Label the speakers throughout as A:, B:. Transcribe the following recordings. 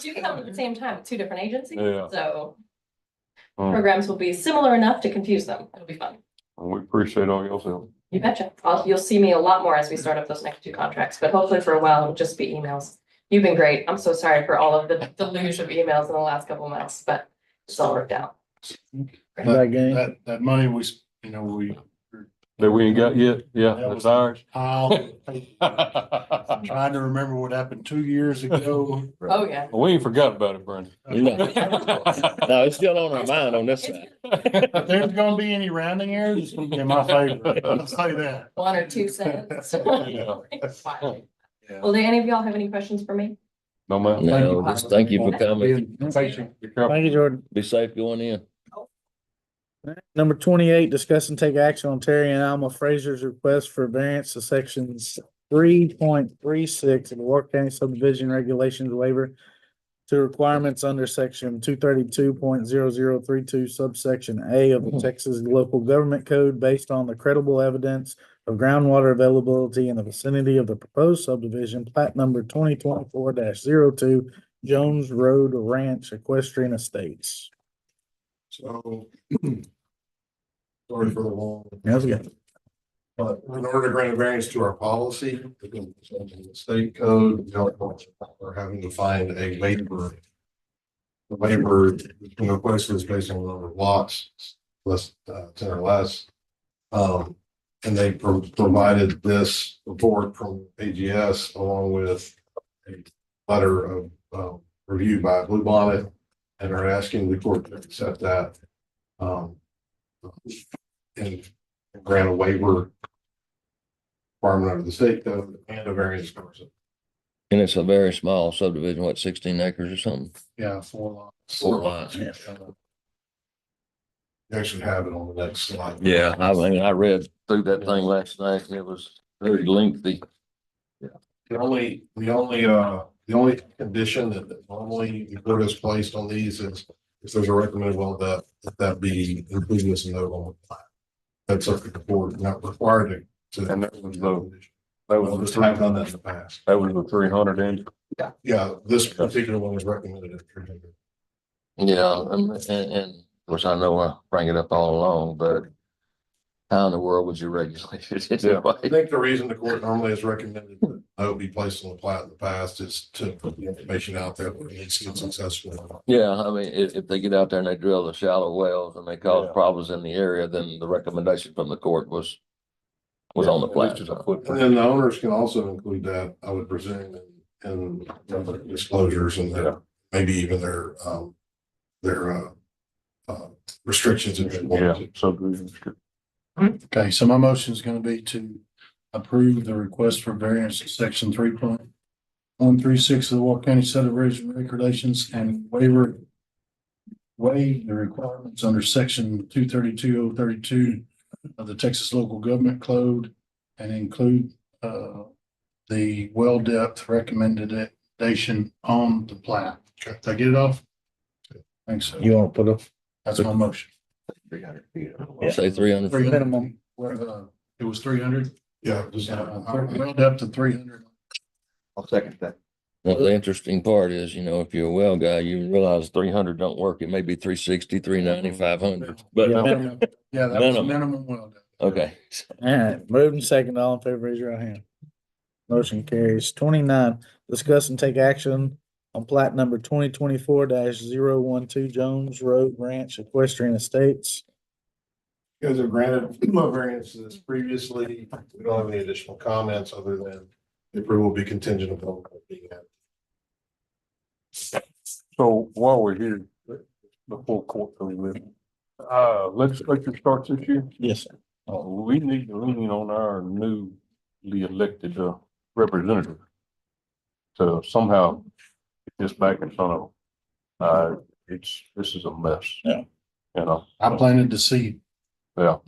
A: do come at the same time, two different agencies,
B: Yeah.
A: so
B: Um,
A: programs will be similar enough to confuse them. It'll be fun.
B: We appreciate all y'all's help.
A: You betcha. I'll, you'll see me a lot more as we start up those next two contracts, but hopefully for a while it'll just be emails. You've been great. I'm so sorry for all of the deluge of emails in the last couple months, but it's all worked out.
C: That game,
D: That, that money was, you know, we
B: That we ain't got yet, yeah,
D: That
B: that's
D: was-
B: ours.
D: piled. Trying to remember what happened two years ago.
A: Oh, yeah.
B: We ain't forgot about it, Brandon.
C: no, it's still on our mind on this side.
D: If there's gonna be any rounding errors, it's gonna be in my favor. I'll say that.
A: One or two cents.
D: Yeah.
A: Fine. Well, do any of y'all have any questions for me?
B: No, ma'am.
C: No, just thank you for coming.
D: Being patient.
B: Be careful.
C: Thank you, Jordan.
E: Be safe going in.
C: Number twenty-eight, discuss and take action on Terry and Alma Fraser's request for variance to sections three point three six of the Walker County subdivision regulations waiver to requirements under section two thirty-two point zero zero three two subsection A of the Texas Local Government Code based on the credible evidence of groundwater availability in the vicinity of the proposed subdivision, plat number twenty twenty-four 2 Jones Road Ranch Equestrian Estates.
D: So. Sorry for the long.
C: How's it going?
D: But in order to grant a variance to our policy, again, it's under the state code, we're having to find a waiver. The waiver, the request is based on the number of lots, less, uh, ten or less. Um, and they pro- provided this report from AGS along with a letter of, um, review by Blue Bonnet. And are asking the court to accept that. Um. And grant a waiver requirement under the state code and a variance person.
E: And it's a very small subdivision, what, sixteen acres or something?
D: Yeah, four lots.
E: Four lots.
D: You actually have it on the next slide.
E: Yeah, I mean, I read through that thing last night and it was very lengthy.
D: The only, the only, uh, the only condition that that normally the court has placed on these is if there's a recommended well depth, that that be included as a note on the plat. That's up to the board, not required to. to-
B: And that was the- That
D: Well,
B: was
D: this
B: the
D: time done that
B: three,
D: in the past.
B: that was the three hundred inch.
D: Yeah, this particular one was recommended. at 300.
E: Yeah, and, and, and of course, I know I bring it up all along, but how in the world would you regulate it
B: Yeah.
D: I
E: anyway?
D: think the reason the court normally has recommended that it be placed on the plat in the past is to put the information out there where it's been successful.
E: Yeah, I mean, if, if they get out there and they drill the shallow wells and they cause
B: Yeah.
E: problems in the area, then the recommendation from the court was was on the
B: At least
E: plat.
B: it's a footprint.
D: And then the owners can also include that, I would presume, in, in their disclosures and their, maybe even their, um, their, uh, uh, restrictions. if they
B: Yeah,
D: want to.
B: subdivision.
F: Okay, so my motion is gonna be to approve the request for variance to section three point one three six of the Walker County subdivision regulations and waiver waive the requirements under section two thirty-two oh thirty-two of the Texas Local Government Code and include uh the well depth recommendation on the plat. Did I get it off? Thanks. so.
C: You wanna put up
F: That's my motion.
E: Say three hundred.
F: Three hundred.
C: Minimum.
F: Where, uh, It was three hundred?
D: Yeah. just-
F: Yeah, well, up to three hundred.
B: I'll second that.
E: Well, the interesting part is, you know, if you're a well guy, you realize three hundred don't work. It may be 360, 390, 500.
C: Yeah.
E: But,
F: Minimum. Yeah, that was the
E: Minimum.
F: minimum well done.
E: okay.
C: All right, moved and second, all in favor, raise your right hand. Motion carries. Twenty-nine, discuss and take action on plat number twenty twenty-four 12 Jones Road Ranch Equestrian Estates.
D: You guys have granted no variance to this previously. We don't have any additional comments other than the approval will be contingent upon being at
B: So while we're here, the full court for this, uh, legislature starts this year.
C: Yes, sir.
B: Uh, we need to lean on our newly elected uh, representative to somehow get this back in front of them. Uh, it's, this is a mess.
C: Yeah.
B: You know,
F: I planted the seed.
E: You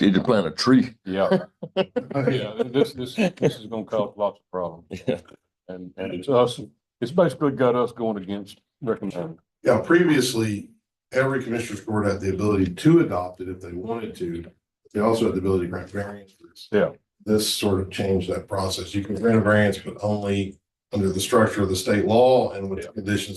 E: need to plant a tree.
B: yeah. Yeah, this, this, this is gonna cause lots of problems.
E: Yeah.
B: And, and it's us, it's basically got us going against recommend.
D: Yeah, previously, every commissioner's court had the ability to adopt it if they wanted to. They also had the ability to grant variances.
B: Yeah.
D: This sort of changed that process. You can grant a variance, but only under the structure of the state law and with the conditions